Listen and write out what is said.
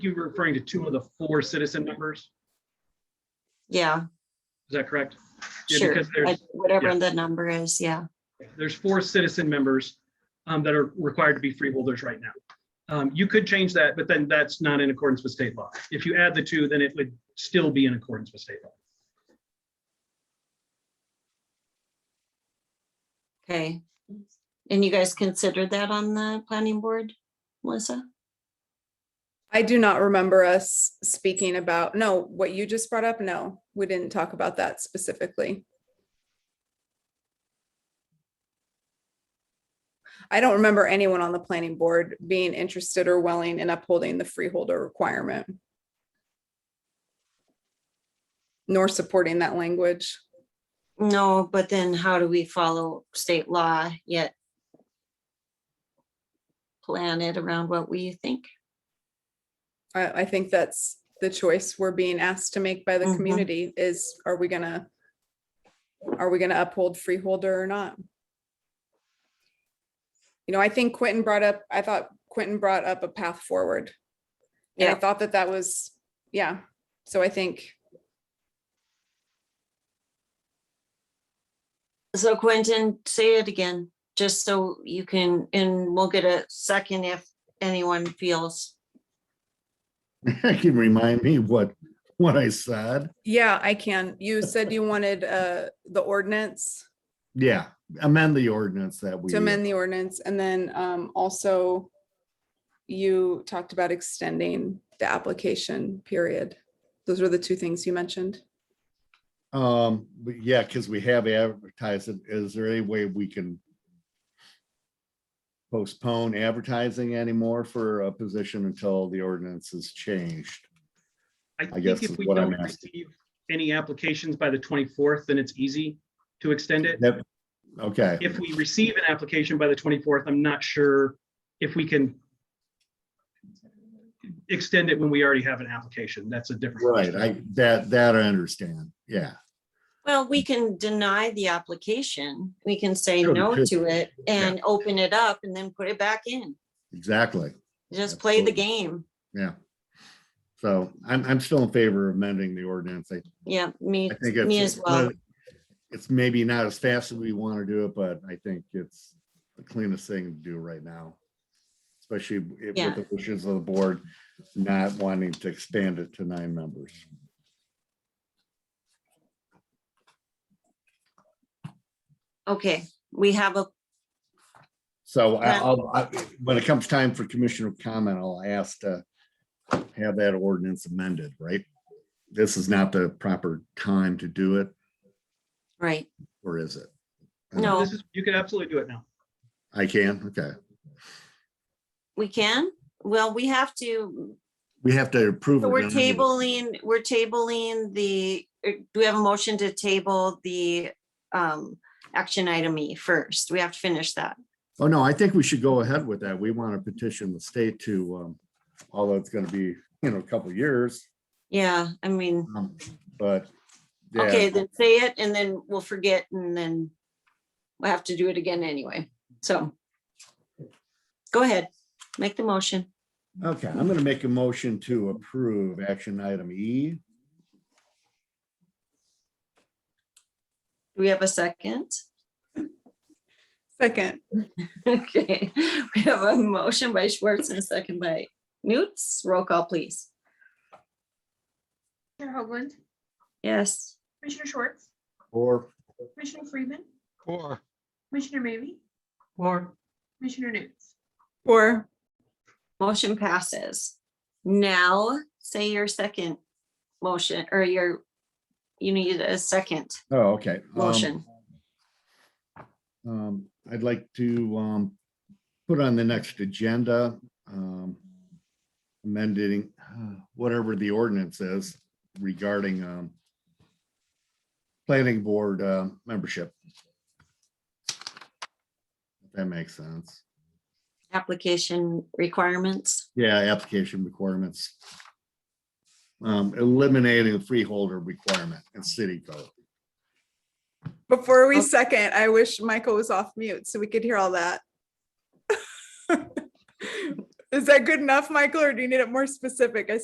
you were referring to two of the four citizen members. Yeah, Is that correct? Yeah, sure. because there's- Like, Whatever yeah. the number is, yeah. There's four citizen members um, that are required to be freeholders right now. Um, You could change that, but then that's not in accordance with state law. If you add the two, then it would still be in accordance with state law. Okay. And you guys considered that on the planning board, Melissa? I do not remember us speaking about, no, what you just brought up, no, we didn't talk about that specifically. I don't remember anyone on the planning board being interested or willing in upholding the freeholder requirement. Nor supporting that language. No, but then how do we follow state law yet? Plan it around what we think. I, I think that's the choice we're being asked to make by the Mhm. community is, are we gonna? Are we gonna uphold freeholder or not? You know, I think Quentin brought up, I thought Quentin brought up a path forward. And I Yeah. thought that that was, yeah, so I think, So Quentin, say it again, just so you can, and we'll get a second if anyone feels. Can remind me what, what I said? yeah, I can. You said you wanted uh the ordinance Yeah, amend the ordinance that we. to amend the ordinance and then um also. You talked about extending the application period. Those were the two things you mentioned. Um, but yeah, because we have advertised it. Is there any way we can postpone advertising anymore for a position until the ordinance is changed? I think guess if is we what I'm don't asking. receive any applications by the 24th, then it's easy to extend it. Yep. Okay, If we receive an application by the 24th, I'm not sure if we can extend it when we already have an application. That's a different. right, question. I, that, that I understand, yeah. Well, we can deny the application. We can say Sure, we no could. to it and open it up and then put it back in. Exactly, Just play the Absolutely. game. yeah. So I'm, I'm still in favor of amending the ordinance. I Yeah, me, I think me it's, as well. it's maybe not as fast as we want to do it, but I think it's the cleanest thing to do right now. Especially if- Yeah. with the wishes of the board, not wanting to expand it to nine members. Okay, we have a, So I- Yeah. I'll, I- when it comes time for commissioner comment, I'll ask to have that ordinance amended, right? This is not the proper time to do it, right, or is it? no, This is, you can absolutely do it now. I can, okay. we can. Well, we have to, We have to approve. so it we're now. tabling, we're tabling the, er, do we have a motion to table the um action item E first? We have to finish that. Oh, no, I think we should go ahead with that. We want to petition the state to, um, although it's gonna be, you know, a couple of years, Yeah, I mean, um, but. yeah, okay, then say it and then we'll forget and then we'll have to do it again anyway. So go ahead, make the motion. Okay, I'm gonna make a motion to approve action item E. Do we have a second? Second, Okay, we have a motion by Schwartz and a second by Newts. Roll call, please. Commissioner Hoagland, Yes. Commissioner Schwartz, Or, Commissioner Freeman, Or, Commissioner Maybe, Or. Commissioner Nunes. or Motion passes. Now, say your second motion or your, you need a second oh, okay. um, motion. Um, I'd like to, um, put on the next agenda, um, amending, uh, whatever the ordinance is regarding, um, planning board, uh, membership. If that makes sense. Application requirements. Yeah, application requirements. Um, eliminating the freeholder requirement in city code. before we Okay. second, I wish Michael was off mute so we could hear all that. Is that good enough, Michael, or do you need it more specific? I